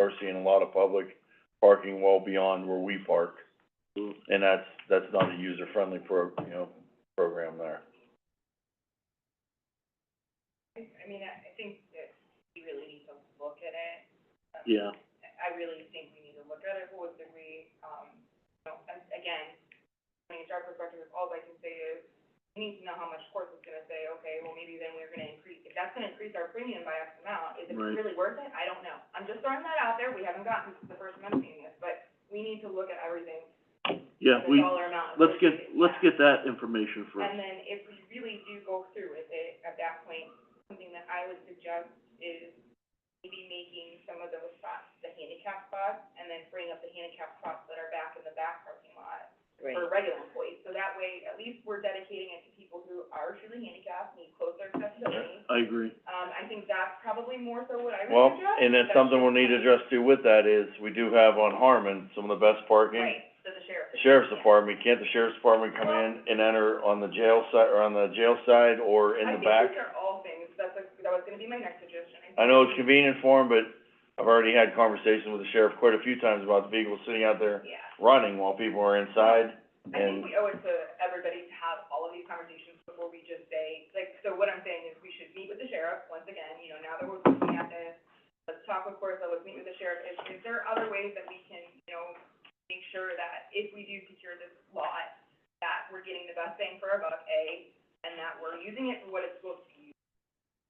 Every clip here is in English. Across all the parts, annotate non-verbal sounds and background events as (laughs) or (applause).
are seeing a lot of public parking well beyond where we park. Mm-hmm. And that's, that's not a user-friendly pro, you know, program there. I I mean, I, I think that we really need to look at it. Um, Yeah, I really think we need to look at it holistically, um, you know, and again, from an HR perspective, all I can say is, we need to know how much course is gonna say, okay, well, maybe then we're gonna increase, if that's gonna increase our premium by X amount, is it Right. really worth it? I don't know. I'm just throwing that out there, we haven't gotten, this is the first time I'm seeing this, but we need to look at everything, yeah, the we, dollar amount. let's get, associated with let's that. get that information first. And then if we really do go through with it at that point, something that I would suggest is maybe making some of those spots, the handicap spots, and then freeing up the handicap spots that are back in the back parking lot for regular employees. So that way, at least we're dedicating it to people who are truly handicapped, need closer accessibility. I agree. Um, I think that's probably more so what I Well, would suggest. and then something we'll need to address too with that is, we do have on Harmon some of the best parking. Right, so the sheriff. Sheriff's Department, can't the Sheriff's Department come in and enter on the jail side, or on the jail side, or in I the back? think these are all things, that's, a- that was gonna be my next suggestion. I know it's convenient for him, but I've already had conversations with the sheriff quite a few times about the vehicles sitting out there Yeah. running while people are inside, I think and, we owe it to everybody to have all of these conversations before we just say, like, so what I'm saying is we should meet with the sheriff, once again, you know, now that we're looking at this, let's talk with Corsa, let's meet with the sheriff, is, is there other ways that we can, you know, make sure that if we do secure this lot, that we're getting the best bang for our buck, A, and that we're using it for what it's supposed to be used.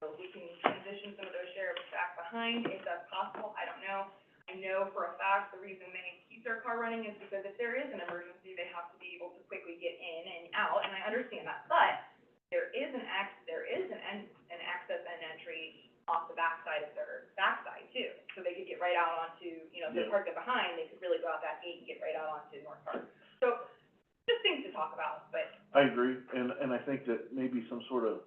So we can transition some of those sheriffs back behind, if that's possible, I don't know. I know for a fact, the reason they keep their car running is because if there is an emergency, they have to be able to quickly get in and out, and I understand that. But there is an ac there is an en- an access and entry off the backside of their backside too. So they could get right out onto, you know, if Yeah. they're parked up behind, they could really go out that gate and get right out onto North Park. So, just things to talk about, but I agree, and, and I think that maybe some sort of,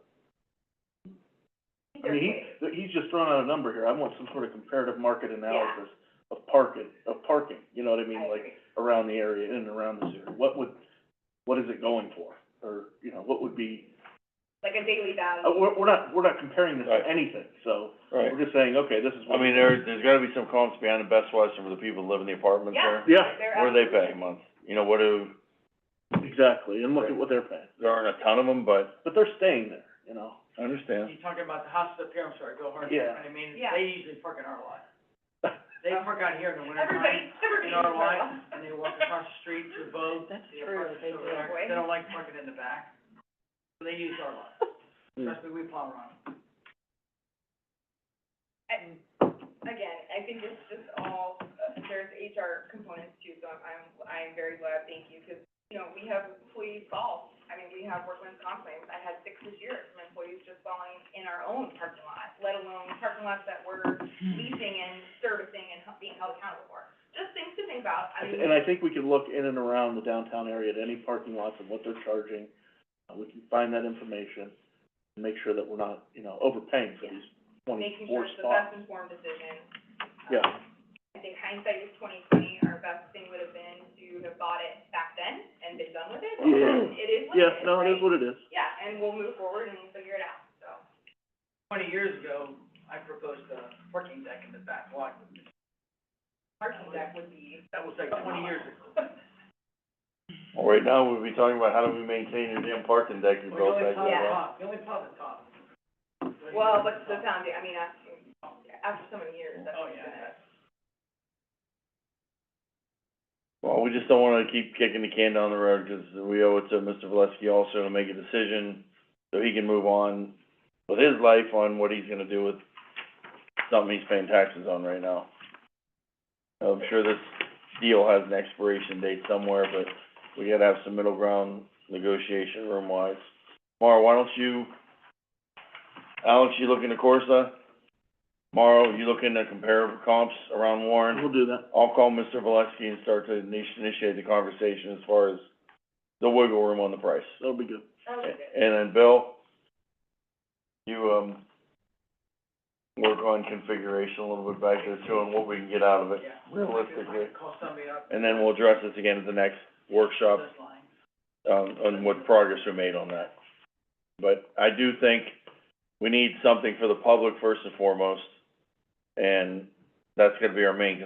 I think I there's mean, ways. he, he's just throwing out a number here. I want some sort of comparative market analysis of parking, of parking, you know what I mean? I Like, agree. around the area, in and around this area. What would, what is it going for? Or, you know, what would be, Like a daily uh, value. we're, we're not, we're not comparing this Right. to anything, so right. we're just saying, okay, this is I what. mean, there, there's gotta be some comps behind the Best Western for the people that live in the apartments Yeah. there. Yeah. they're What do they pay a absolutely- month? You know, what do, Exactly, and look at what they're paying. there aren't a ton of them, but But they're staying there, you know? I understand. You're talking about the houses up here, I'm sorry, Bill Harden. Yeah. I mean, Yeah. they usually park in our lot. They park out here in the winter time, Everybody, everybody. in our lot, and they walk across the street to the boat. That's they true, park they over do. there. They don't like parking in the back, so they use our (laughs) lot. Hmm. Trust me, we plow around. (laughs) I- Again, I think it's just all, uh, there's HR components too, so I'm, I'm very glad, thank you, because, you know, we have employees fall. I mean, we have workman's comp claims, I had six this year from employees just falling in our own parking lot, let alone parking lots that we're leasing and servicing and hu- being held accountable for. Just things to think about, I mean. And (laughs) I think we can look in and around the downtown area at any parking lots and what they're charging. Uh, we can find that information and make sure that we're not, you know, overpaying for these making twenty-four sure it's the spots. best informed decision. Yeah. Um, I think hindsight is twenty twenty, our best thing would have been to have bought it back then and been done with it. Yeah. It is what it is, Yeah, no, it is right? what it is. Yeah, and we'll move forward and we'll figure it out, so. Twenty years ago, I proposed a parking deck in the back lot. Parking deck would be, That was like twenty years ago. Well, right now, we'll be talking about how do we maintain the damn parking deck you We built only back plow there. the Yeah. top, we only plow the top. well, but the foundation, I mean, after, after so many years, that's Oh, gonna. yeah. Well, we just don't wanna keep kicking the can down the road, 'cause we owe it to Mr. Valesky also to make a decision, so he can move on with his life on what he's gonna do with something he's paying taxes on right now. I'm sure this deal has an expiration date somewhere, but we gotta have some middle ground negotiation room-wise. Mara, why don't you, Alex, you looking to Corsa? Mara, you looking to compare comps around Warren? We'll do that. I'll call Mr. Valesky and start to initi- initiate the conversation as far as the wiggle room on the price. That'll be good. That was good. And then, Bill, you, um, work on configuration a little bit back there too, and what we can get out of it. Yeah. realistically. Call somebody up. And then we'll address this again at the next workshop, This line. um, on what progress we made on that. But I do think we need something for the public first and foremost, and that's gonna be our main concern